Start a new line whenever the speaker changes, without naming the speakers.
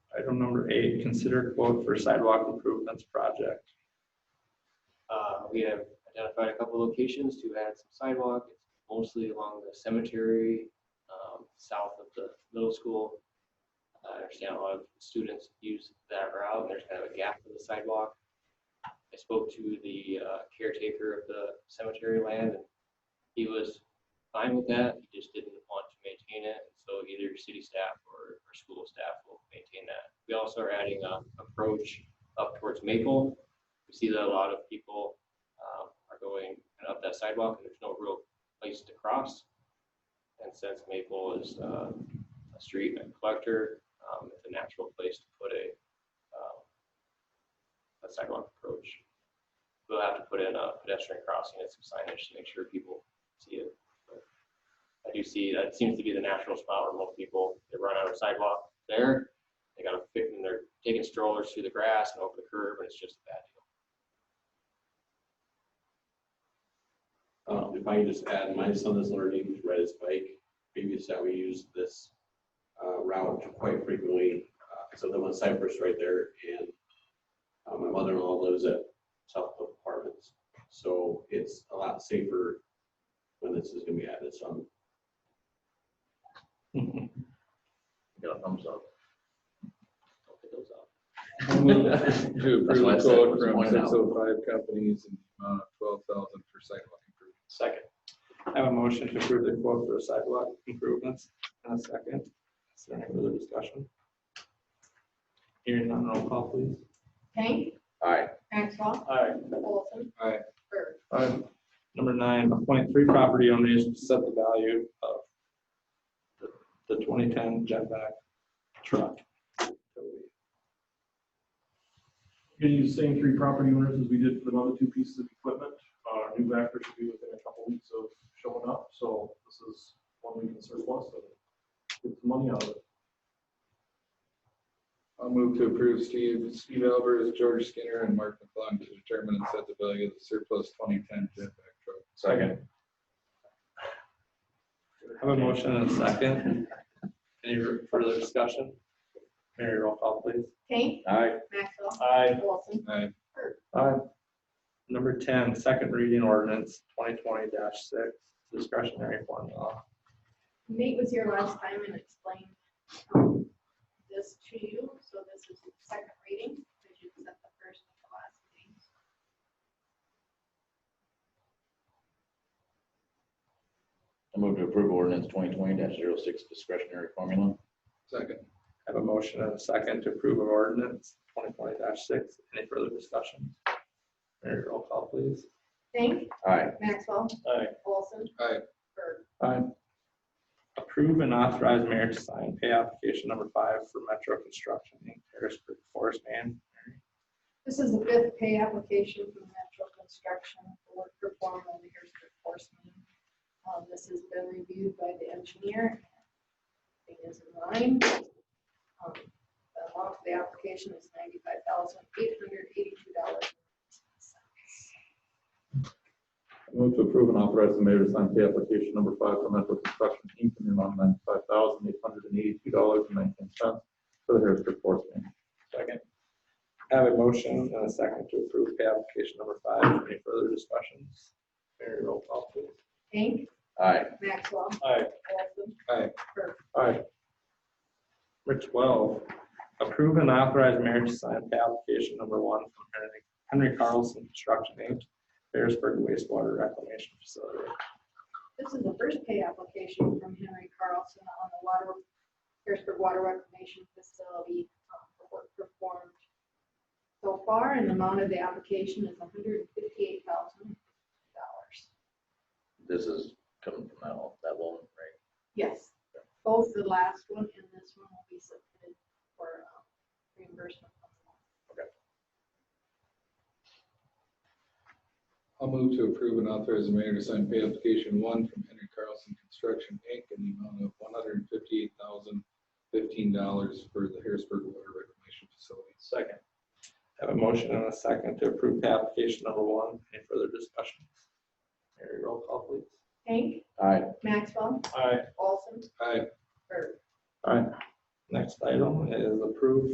Item number eight, consider quote for sidewalk improvements project.
Uh, we have identified a couple locations to add some sidewalk, It's mostly along the cemetery, um, south of the middle school. Uh, I understand a lot of students use that route, there's kind of a gap in the sidewalk. I spoke to the uh, caretaker of the cemetery land, and he was fine with that, he just didn't want to maintain it, and so either city staff or, or school staff will maintain that. We also are adding a approach up towards Maple, we see that a lot of people um, are going kind of up that sidewalk and there's no real place to cross. And since Maple is uh, a street and collector, um, it's a natural place to put a um, a sidewalk approach. We'll have to put in a pedestrian crossing and some signage to make sure people see it. But I do see, that seems to be the natural spot where most people, they run out of sidewalk there. They gotta fit and they're taking strollers through the grass and over the curb and it's just a bad deal.
Um, if I can just add, my son is learning to ride his bike. Previous that we used this uh, route quite frequently. Uh, So I live on Cypress right there and uh, my mother-in-law lives at South Cliff Apartments. So it's a lot safer when this is gonna be added, so I'm
Got a thumbs up.
Don't pick those up.
To
That's
approve
why I
the
said it
quote
was
from
pointed out.
six oh five companies and amount of twelve thousand for sidewalk improvement.
Second. I have a motion to approve the quote for sidewalk improvements and a second. Is there any further discussion? Hearing none, roll call please.
Kane.
Aye.
Maxwell.
Aye.
Olson.
Aye.
Bird.
Number nine, appoint three property owners to set the value of the- the twenty ten jetback truck.
We're Gonna use the same three property owners as we did for the other two pieces of equipment. Uh, Our new backer should be within a couple weeks of showing up, so this is one we can surplus and get some money out of it.
I'll move to approve Steve, Steve Albers, George Skinner, and Mark McClung to determine and set the value of the surplus twenty ten jetback truck.
Second. Have a motion and a second. Any further discussion? Mary, roll call please.
Kane.
Aye.
Maxwell.
Aye.
Olson.
Aye.
Aye. Number ten, second reading ordinance twenty twenty six, discretionary formula.
Nate was here last time and explained um, this to you, so this is the second reading, because you set the first and the last reading.
I move to approve ordinance twenty twenty 6 discretionary formula.
Second.
Have a motion and a second to approve of ordinance twenty twenty six. Any further discussion? Mary, roll call please.
Kane.
Aye.
Maxwell.
Aye.
Olson.
Aye.
Bird.
Aye. Approve and authorize mayor to sign pay application number five for Metro Construction Inc. Harris Creek Forest Man.
This is the fifth pay application from Metro Construction for work performed on the Harrisburg Force Main. Um, This has been reviewed by the engineer. It is in line. Um, The amount of the application is ninety-five thousand eight hundred eighty-two dollars.
Move to approve and authorize the mayor to sign the application number five for Metro Construction Inc. in the amount of ninety-five thousand, eight hundred and eighty-two dollars and nineteen cents for the Harrisburg Forest Main.
Second. Have a motion and a second to approve pay application number five. Any further discussions? Mary, roll call please.
Hank,
Aye.
Maxwell,
Aye.
Olson,
Aye. Number twelve, approve and authorize mayor to sign the application number one from Henry- Henry Carlson Construction Inc., Harrisburg wastewater reclamation facility.
This is the first pay application from Henry Carlson on the water, Harrisburg Water Reclamation Facility um, for work performed so far, and the amount of the application is hundred and fifty-eight thousand dollars.
This is coming from that, one- that woman, right?
Yes, both the last one and this one will be submitted for um, reimbursement.
I'll move to approve and authorize the mayor to sign pay application one from Henry Carlson Construction Inc. in the amount of one hundred and fifty-eight thousand fifteen dollars for the Harrisburg Water Reclamation Facility.
Second. Have a motion and a second to approve pay application number one. Any further discussions? Mary, roll call please.
Hank,
Aye.
Maxwell,
Aye.
Olson,
Aye.
Bird.
All right, next item is approve